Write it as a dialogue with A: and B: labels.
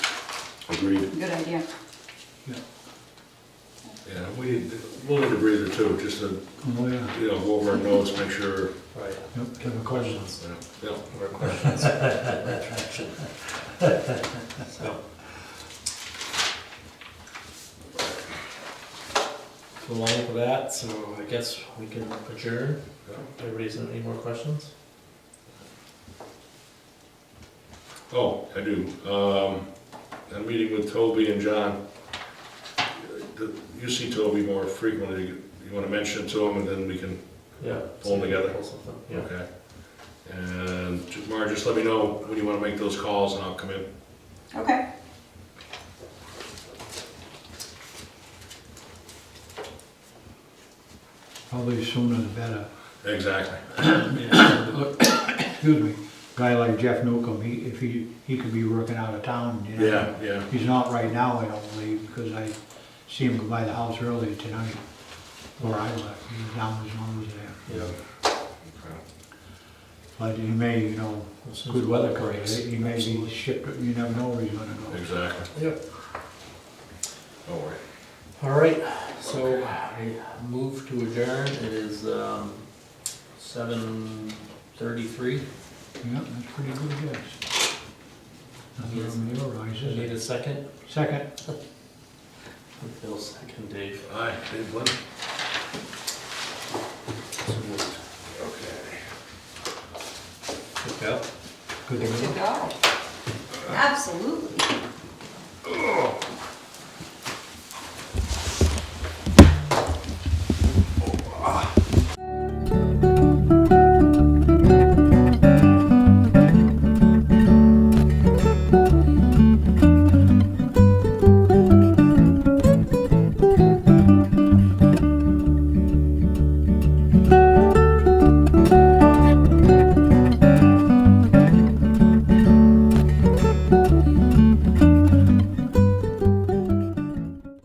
A: Agreed.
B: Good idea.
C: yeah.
A: Yeah, we need, we'll need a breather too, just to,
C: Oh, yeah.
A: you know, go over our notes, make sure,
D: Right.
C: Yep, give them questions.
A: you know,
D: More questions, retraction. So, so along with that, so I guess we can adjourn.
A: yeah.
D: Everybody's got any more questions?
A: Oh, I do. Um, I'm meeting with Toby and John. The- You see Toby more frequently, you wanna mention it to him and then we can,
D: Yeah.
A: Pull them together.
D: Pull something, Yeah.
A: okay? And ju- Mara, just let me know when you wanna make those calls and I'll come in.
B: Okay.
C: Probably sooner the better.
A: Exactly.
C: Excuse me, guy like Jeff Newcomb, he, if he, he could be working out of town, you know?
A: Yeah, yeah.
C: He's not right now, I don't believe, because I see him go by the house earlier tonight, or I left, he was down his nose there.
D: Yeah.
A: Okay.
C: But he may, you know,
D: As soon as
C: good
D: the
C: weather
D: breaks.
C: comes, he may be shipped, you never know where he's gonna go.
A: Exactly.
D: Yep.
A: Don't worry.
D: All right, so I move to adjourn. It is, um, seven thirty-three.
C: Yeah, that's pretty good guess. Nothing
D: Yes.
C: from your eyes, is
D: Need
C: it?
D: a second?
C: Second,
D: Bill, second, Dave.
A: Aye, Dave Lynn.
D: So moved.
A: Okay.
D: Pick up.
C: good to
B: Good to
C: go.
B: go. Absolutely.